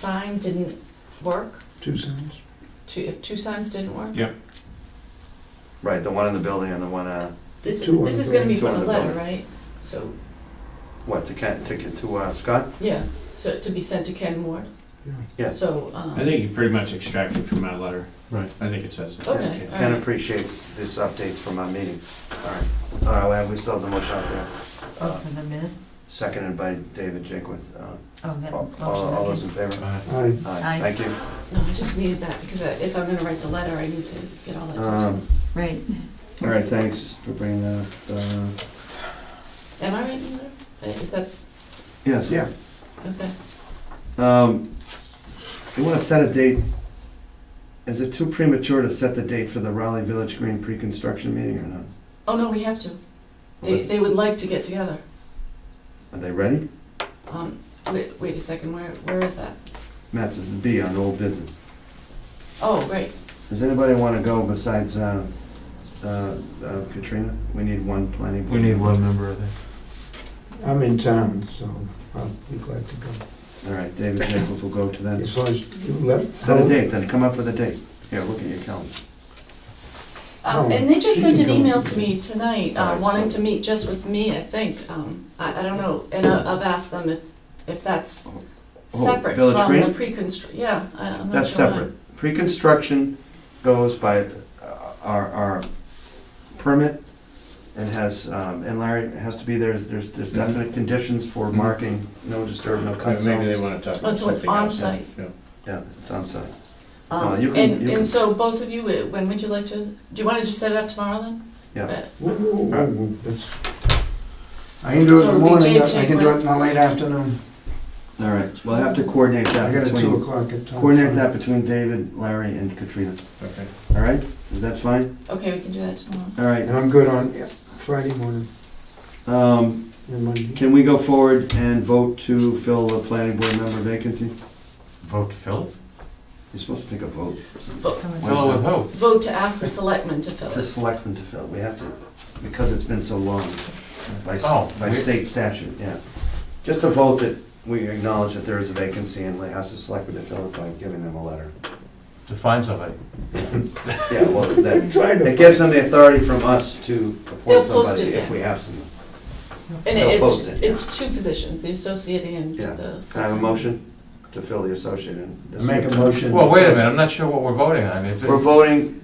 sign didn't work? Two signs. Two, if two signs didn't work? Right, the one in the building and the one, uh, This, Two on this the is gonna be building, for two on the the letter, building. right? So, what, to Ken, to, to uh, Scott? yeah, so to be sent to Ken Ward? Yeah. Yes. So, um. I think you pretty much extracted from my letter. Right. I think it says that. Okay, Mm. all Ken right. appreciates these updates from our meetings. All right, all right, well, we still have the motion out there. Uh, Open the minutes? Seconded by David Jaquith. Uh, Oh, that All motion. all- all those okay. in favor? I, Aye, Aye. thank you. No, I just needed that because I- if I'm gonna write the letter, I need to get all that detail. Um, Right. All right, thanks for bringing that up. Uh, Am I writing the letter? Uh, Is that, Yes. Yeah. okay. Um, You want to set a date? Is it too premature to set the date for the Raleigh Village Green pre-construction meeting or not? Oh, no, we have to. They, Let's- they would like to get together. Are they ready? Um, wait, wait a second, where, where is that? Matt says it'd be on old business. Oh, right. Does anybody want to go besides uh, uh, uh, Katrina? We need one planning. board. member, I think. I'm in town, so I'll be glad to go. All right, David Jacobs will go to that. As long as you left. Set a date, then come up with a date. Here, look at your calendar. Um, Oh, and they just she sent an can go. email to me tonight, uh, Alright, wanting so- to meet just with me, I think. Um, I, I don't know, and I- I've asked them if, if that's Oh, separate Village from Green? the pre-constr, yeah, I- I'm not That's sure. separate. Pre-construction goes by uh, our, our permit and has, um, and Larry it has to be there. There's, there's definite conditions for Mhm. marking, no disturb, no cut Uh, Maybe they zones. want to talk Oh, about so it's something else. on-site. yeah. Yeah, it's on site. Um, No, you can- and, you can- and so both of you, uh, when would you like to, do you wanna just set it up tomorrow then? Yeah. Whoa, whoa, whoa, whoa, that's- I can So do it it'll in the be morning, Jake, I Jake can do Webb. it in the late afternoon. All right, we'll have to coordinate I that got a two between, o'clock at town. coordinate time. that between David, Larry, and Katrina. Okay. All right, is that fine? Okay, we can do that tomorrow. All right, And I'm good on yeah, Friday morning um, and Monday. can we go forward and vote to fill the planning board member vacancy? Vote to fill? You're supposed to take a vote. Come on. Fill it with who? Vote to ask the selectmen to fill It's a it. selectman to fill, we have to, because it's been so long, by, Oh, s- by we- state statute, yeah. Just a vote that we acknowledge that there is a vacancy and ask the selectman to fill it by giving them a letter. To find somebody. Yeah, well, that, Trying it gives them the authority from us to They'll appoint post somebody it, if yeah. we have someone. And They'll it's, post it, yeah. it's two positions, the associate and Yeah. the Can I have a full-time. motion to fill the associate and? Make a motion. Well, wait a minute, I'm not sure what we're voting on. If We're it- voting,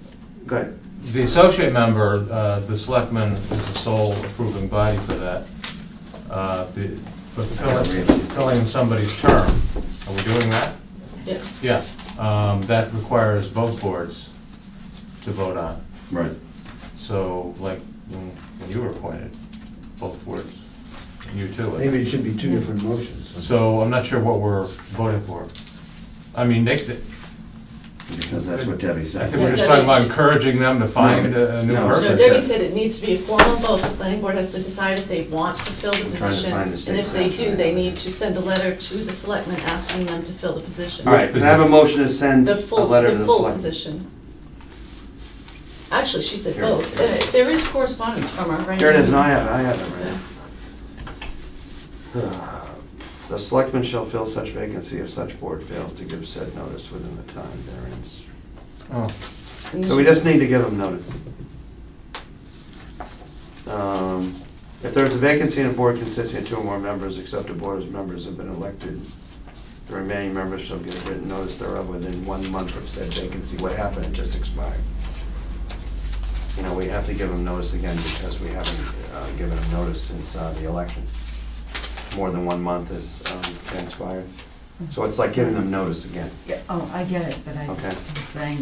go ahead. The associate member, uh, the selectman is the sole approving body for that. Uh, the- But filling, filling somebody's term, are we doing that? Yes, Yeah, um, that requires both boards to vote on. Right. So like when when you were appointed, both boards, and you too. I think. Maybe it should be two different motions. So I'm not sure what we're voting for. I mean, they, they- Because that's what Debbie I said. think we're just talking about encouraging them to find a a new No. no, person. Debbie said it needs to be a formal vote, the planning board has to decide if they want to fill the I'm trying to position. find the And state if they statute. do, they need to send a letter to the selectmen asking them to fill the position. All right, can I have a motion to send a The full, letter to the the full selectman? position. Actually, she said Here. both, Uh, there is correspondence from our ranking. Here it is, and I have, it. I have it right now. The selectman shall fill such vacancy if such board fails to give said notice within the time therein. Oh, And So we just need to give them notice. Um, If there is a vacancy in a board consisting of two or more members, except the board's members have been elected, the remaining members shall give written notice thereof within one month of said vacancy. What happened, it just expired. You know, we have to give them notice again because we haven't uh, given them notice since uh, the election. More than one month has um, transpired. So it's like giving them notice again. Oh, I get it, but I just Okay. don't think.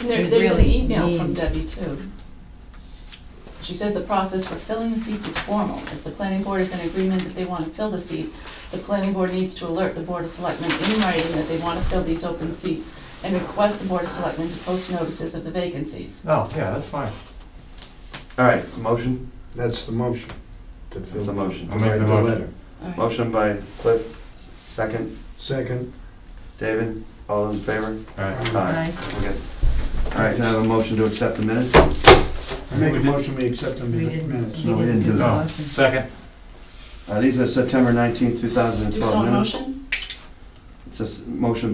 And there, We there's an really email from need- Debbie too. She says the process for filling the seats is formal. If the planning board is in agreement that they want to fill the seats, the planning board needs to alert the board of selectmen in writing that they want to fill these open seats and request the board of selectmen to post notices of the vacancies. no, Oh, yeah, that's fine. All right, motion? That's the motion. to fill- That's a motion. I'll make write the motion. letter. All right. Motion by Cliff, second, Second. David, all those in favor? All right. Aye. Aye. Okay. All right, can I have a motion to accept the minutes? I make a motion, we accept the We didn't, minutes. No, we we didn't do didn't do the that. motion. Oh. Second, Uh, These are September 19, Do you want 2012 a minutes. motion? It's a s- motion